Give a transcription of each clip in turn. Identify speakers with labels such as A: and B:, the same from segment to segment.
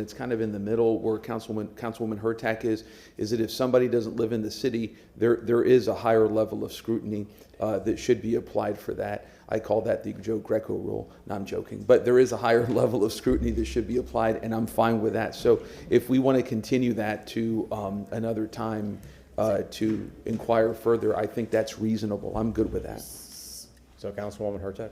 A: It's kind of in the middle where Councilwoman, Councilwoman Hurtak is, is that if somebody doesn't live in the city, there, there is a higher level of scrutiny uh, that should be applied for that. I call that the Joe Greco rule, No, I'm joking, but there is a higher level of scrutiny that should be applied, and I'm fine with that. So if we want to continue that to um, another time uh, to inquire further, I think that's reasonable. I'm good with that.
B: So Councilwoman Hurtak?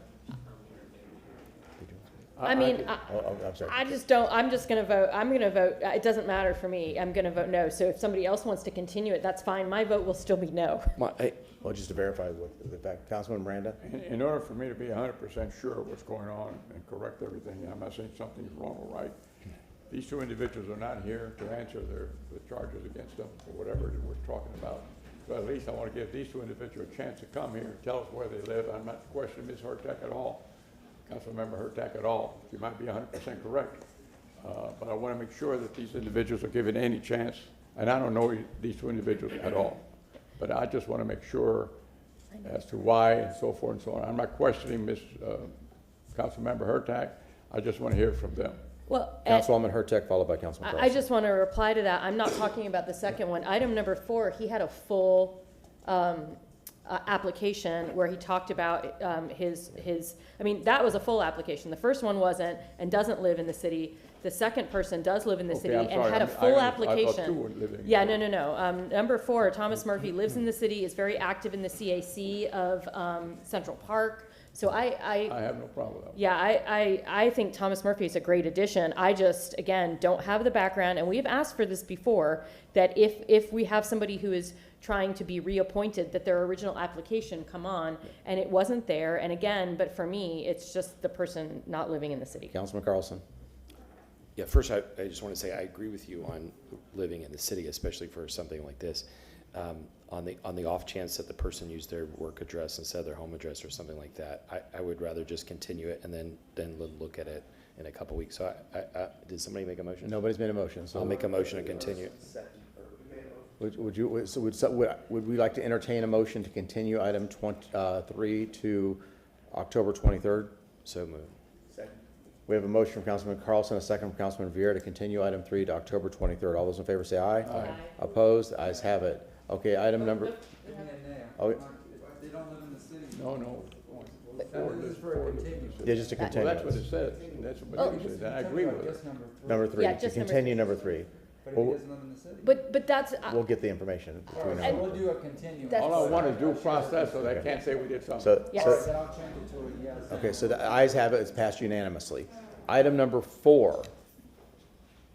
C: I mean, I,
B: Oh, oh, I'm sorry.
C: I just don't, I'm just gonna vote, I'm gonna vote, uh, it doesn't matter for me, I'm gonna vote no. So if somebody else wants to continue it, that's fine, my vote will still be no.
A: My- I-
B: Well, just to verify what the fact, Councilman Miranda?
D: In- In order for me to be hundred percent sure of what's going on and correct everything, I'm not saying something's wrong or right. These two individuals are not here to answer their, the charges against them or whatever it is we're talking about. So at least I want to give these two individuals a chance to come here, and tell us where they live. I'm not questioning Ms. Hurtak at all, Councilmember Hurtak at all. She might be hundred percent correct. Uh, But I want to make sure that these individuals are given any chance, and I don't know these two individuals at all. But I just want to make sure as to why and so forth and so on. I'm not questioning Ms. uh, Councilmember Hurtak. I just want to hear from them.
C: Well, and
B: Councilwoman Hurtak, followed by Councilman
C: I, I
B: Carlson.
C: just wanna reply to that, I'm not talking about the second one. Item number four, he had a full, um, uh, application where he talked about, um, his, his, I mean, that was a full application. The first one wasn't and doesn't live in the city. The second person does live in the
D: Okay,
C: city
D: I'm
C: and
D: sorry.
C: had a
D: I'm- I
C: full
D: under- I thought
C: application.
D: two were living.
C: Yeah, no, no, no. Um, number four, Thomas Murphy lives in the city, is very active in the CAC of, um, Central Park. So I,
D: I
C: I,
D: have no problem with that.
C: yeah, I, I, I think Thomas Murphy is a great addition. I just, again, don't have the background, and we've asked for this before, that if, if we have somebody who is trying to be reappointed, that their original application come on, and it wasn't there. And again, but for me, it's just the person not living in the city.
B: Councilman Carlson?
E: Yeah, first, I, I just want to say, I agree with you on living in the city, especially for something like this. Um, On the, on the off chance that the person used their work address instead of their home address or something like that, I, I would rather just continue it and then, then l- look at it in a couple weeks. So I, I, I, did somebody make a motion?
B: Nobody's made a motion, so.
E: I'll make a motion to continue.
B: Would would you, would- so would, so would, would we like to entertain a motion to continue item twenty, uh, three to October twenty-third?
E: So moved.
B: We have a motion from Councilman Carlson, a second from Councilman Viera to continue item three to October twenty-third. All those in favor say aye. Aye. Opposed? Ayes have it. Okay, item number, oh,
F: They don't live in the city.
D: No, no.
F: This is for a continuance.
B: yeah, just to
D: Well,
B: continue.
D: that's what Oh, it says. That's what it says, and I agree with
F: Just
D: it.
F: number three,
B: Number three,
C: Yeah,
B: to
C: just number
B: continue number three.
F: but if he
B: We'll,
F: doesn't live in the city.
C: But, but that's, I-
B: we'll get the information
F: All
B: between
F: right, so
B: now
F: we'll
B: and
F: do a continuance.
C: That's-
D: All I want is due process, so they can't say we did something.
B: So,
C: Yes.
B: so,
F: Then I'll change it to a yes.
B: okay, so the ayes have it, it's passed unanimously. Item number four,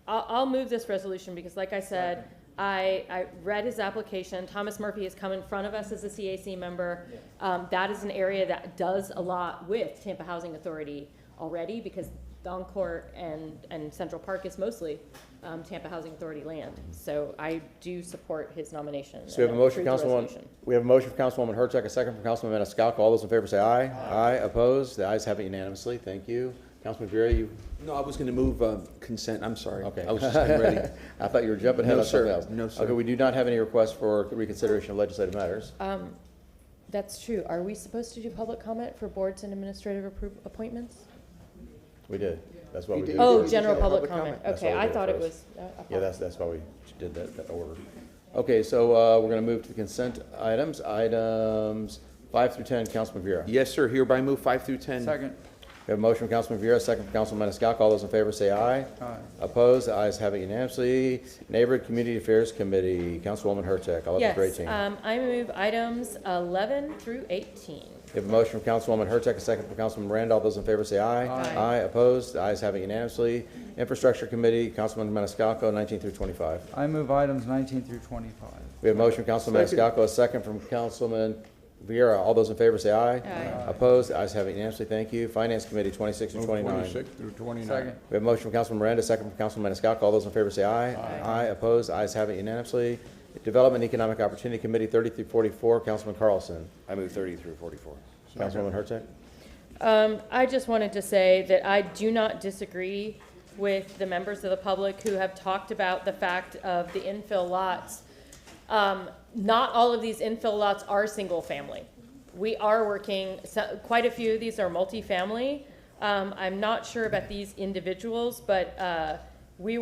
C: I'll, I'll move this resolution because like I said, I, I read his application. Thomas Murphy has come in front of us as a CAC member.
F: Yes.
C: Um, that is an area that does a lot with Tampa Housing Authority already because Doncor and, and Central Park is mostly, um, Tampa Housing Authority land. So I do support his nomination.
B: so we have a
C: and
B: motion,
C: approve the
B: Councilwoman,
C: resolution.
B: we have a motion from Councilwoman Hurtak, a second from Councilman Maniscalco. All those in favor say aye. Aye, opposed, the ayes have it unanimously, thank you. Councilman Vera, you,
A: No, I was going to move um, consent, I'm sorry.
B: okay.
A: I was just getting ready.
B: I thought you were jumping ahead
A: No,
B: on something
A: sir.
B: else.
A: No, sir.
B: Okay, we do not have any requests for reconsideration of legislative matters.
C: Um, that's true. Are we supposed to do public comment for boards and administrative appro- appointments?
B: We did, that's what we did.
C: Oh,
A: did
C: general
A: general public
C: public
B: comment.
C: comment.
B: That's
C: Okay,
B: what we
C: I
B: did
C: thought it was.
B: first.
C: uh,
B: Yeah, that's, that's why we did that, that order. Okay, so, uh, we're gonna move to the consent items, items five through ten, Councilman Vera.
A: Yes, sir, hereby move five through 10.
F: Second.
B: We have a motion from Councilman Viera, second from Councilman Maniscalco. All those in favor say aye.
F: Aye.
B: Opposed? The ayes have it unanimously. Neighborhood Community Affairs Committee, Councilwoman Hurtak, I'll let you
C: Yes,
B: read it.
C: um, I move items 11 through 18.
B: We have a motion from Councilwoman Hurtak, a second from Councilman Miranda. All those in favor say aye.
C: Aye.
B: Opposed? The ayes have it unanimously. Infrastructure Committee, Councilman Maniscalco, 19 through 25.
F: I move items nineteen through twenty-five.
B: We have a motion from Councilman Maniscalco, a second from Councilman Viera. All those in favor say aye.
C: Aye.
B: Opposed? The ayes have it unanimously. Thank you. Finance Committee, 26 through
D: Move
B: 29.
D: Twenty-six through twenty-nine.
F: Second.
B: We have a motion from Councilman Miranda, second from Councilman Maniscalco. All those in favor say aye. Aye. opposed, ayes have it unanimously. Development Economic Opportunity Committee, thirty through forty-four, Councilman Carlson.
E: I move thirty through forty-four.
B: Councilwoman Hurtak?
C: Um, I just wanted to say that I do not disagree with the members of the public who have talked about the fact of the infill lots. Um, Not all of these infill lots are single-family. We are working, so- quite a few of these are multifamily. Um, I'm not sure about these individuals, but uh, we were.